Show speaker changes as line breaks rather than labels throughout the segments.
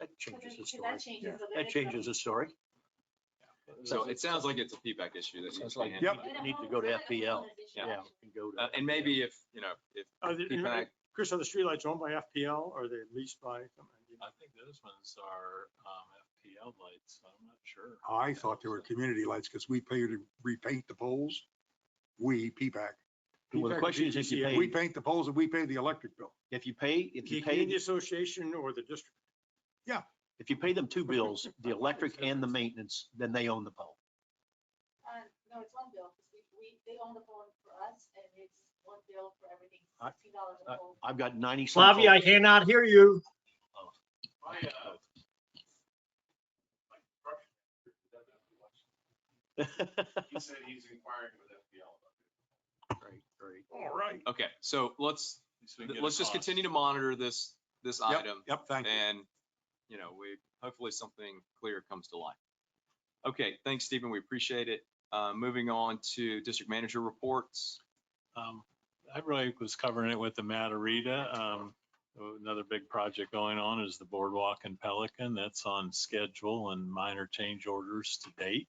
That changes the story.
That changes. the way
That
they
changes
come.
the story.
So it sounds like it's a feedback issue that
Sounds like
needs to be
you
handled.
And a
need to
homeowner-
go to
it's like a
FPL.
homeowner's issue.
Yeah. you go to
Uh, And maybe if, you know, if
Are there-
feedback,
Chris, are the streetlights owned by FPL or are they leased by?
I think those ones are um, FPL lights, I'm not sure.
I thought they were community lights because we pay to repaint the poles. We, P-PAC,
Well, the question is if you
PPAC,
pay-
we paint the poles and we pay the electric bill.
If you pay, if
The
you pay,
community association or the district?
if you pay them two bills, the electric and the maintenance, then they own the pole.
Uh, No, it's one bill, 'cause we, we, they own the phone for us, and it's one bill for everything,
I-
sixteen dollars a
I-
phone.
I've got ninety. some
Flavia, I
poles.
cannot hear you.
My, uh, my brother- He said he's inquiring with FPL.
Great, great.
All right.
okay, so let's,
So we can get a
let's just
cost.
continue to monitor this, this
Yep,
item.
Yep, thank you.
And, you know, we, hopefully something clear comes to light. Okay, thanks, Stephen. We appreciate it. Uh, moving on to district manager reports.
Um, I really was covering it with the Matarita. Um, another big project going on is the boardwalk in Pelican. That's on schedule and minor change orders to date.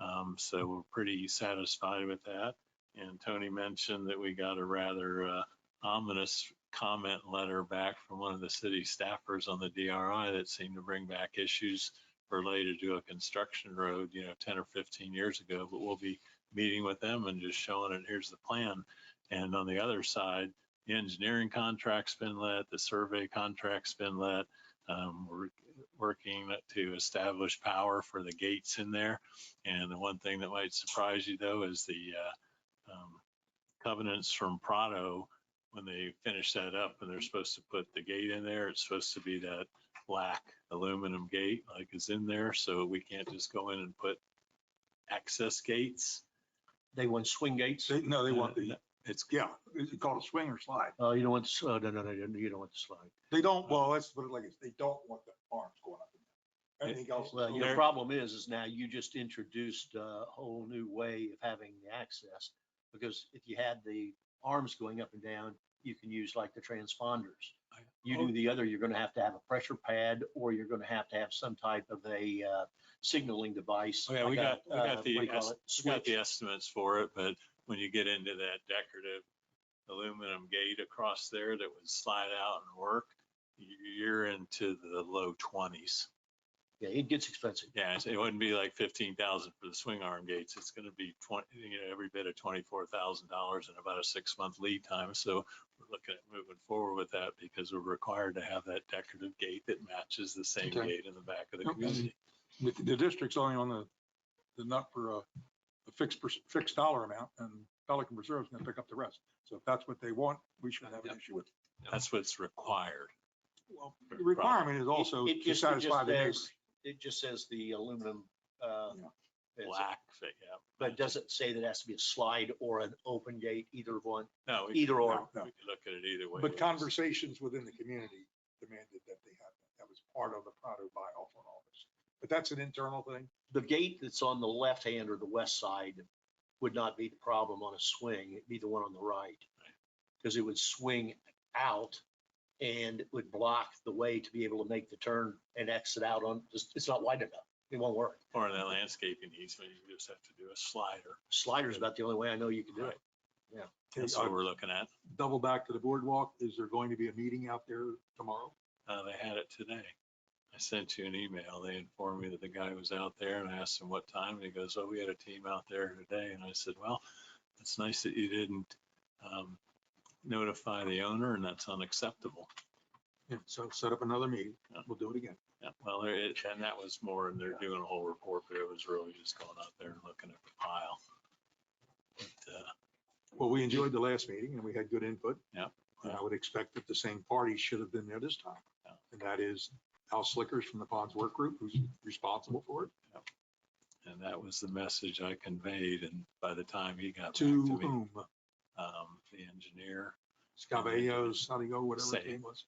Um, so we're pretty satisfied with that. And Tony mentioned that we got a rather uh, ominous comment letter back from one of the city staffers on the DRI that seemed to bring back issues related to a construction road, you know, 10 or 15 years ago, but we'll be meeting with them and just showing it, here's the plan. And on the other side, the engineering contract's been let, the survey contract's been let. Um, we're working to establish power for the gates in there. And the one thing that might surprise you though is the, uh, um, covenants from Prado, when they finish that up and they're supposed to put the gate in there, it's supposed to be that black aluminum gate like is in there. So we can't just go in and put access gates. Uh,
They want swing gates.
They- No, they want the,
It's
yeah, is it called a swing or slide?
Oh, you don't want, s- oh, no, no, no, you don't want the slide.
They don't, well, let's put it like this, they don't want the arms going up. in there. Anything else?
Well, your
There-
problem is, is now you just introduced a whole new way of having the access. Because if you had the arms going up and down, you can use like the transponders. You
Oh.
do the other, you're gonna have to have a pressure pad or you're gonna have to have some type of a uh, signaling device.
Oh, yeah, we
like a,
got, we
uh,
got
what do
the,
you call
es-
it?
we got the
Switch.
estimates for it, but when you get into that decorative aluminum gate across there that would slide out and work, you're into the low twenties.
Yeah, it gets expensive.
Yeah, it's- it wouldn't be like fifteen thousand for the swing arm gates. It's gonna be twenty, you know, every bit of twenty-four thousand dollars and about a six-month lead time. So we're looking at moving forward with that because we're required to have that decorative gate that matches the same
Okay.
gate in the back of the
Okay.
community.
The, the district's only on the, the nut for a a fixed, per- fixed dollar amount and Pelican Reserve's gonna pick up the rest. So if that's what they want, we shouldn't have an issue with. it.
That's what's required.
Well, The requirement is
It-
also
it
to
just- it just
satisfy the
says-
neighbors.
It just says the aluminum, uh,
Yeah.
it's-
Black, fit, yeah.
but it doesn't say that it has to be a slide or an open gate, either one,
Oh, No, we-
either or.
No, no.
We could look at it either way.
But conversations within the community demanded that they have, that That was part of the Prado buy off on all this. But that's an internal thing.
the gate that's on the left hand or the west side would not be the problem on a swing, it'd be the one on the right. Because it would swing out and it would block the way to be able to make the turn and exit out on, it's- it's not wide enough. It won't work.
Or in that landscaping easement, you just have to do a slider.
Slider's about the only way I know you can do it.
That's what we're looking at.
Double back to the boardwalk. Is there going to be a meeting out there tomorrow?
Uh, they had it today. I sent you an email. They informed me that the guy was out there and I asked him what time. And he goes, oh, we had a team out there today. And I said, well, it's nice that you didn't, um, notify the owner and that's unacceptable.
Yeah, so set up another meeting.
Yeah.
We'll do it again.
Yeah, Well, there it, and that was more, and they're doing a whole report, but it was really just going out there and looking at the pile. But, uh,
Well, we enjoyed the last meeting and we had good input.
Yeah.
And I would expect that the same party should have been there this time.
Yeah.
And that is Al Slickers from the Ponds Work Group, who's responsible for it.
And that was the message I conveyed. And by the time he got back to
To
me,
whom?
um, the engineer,
Scavallo, Sonigo, whatever his
Say.
name was.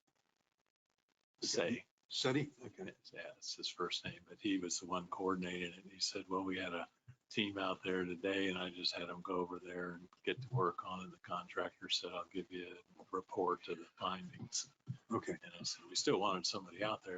say,
Seti?
yeah,
Okay.
it's his first name, but he was the one coordinating it. And he said, well, we had a team out there today and I just had them go over there and get to work on it. The contractor said, I'll give you a report of the findings.
Okay.
And I said, we still wanted somebody out there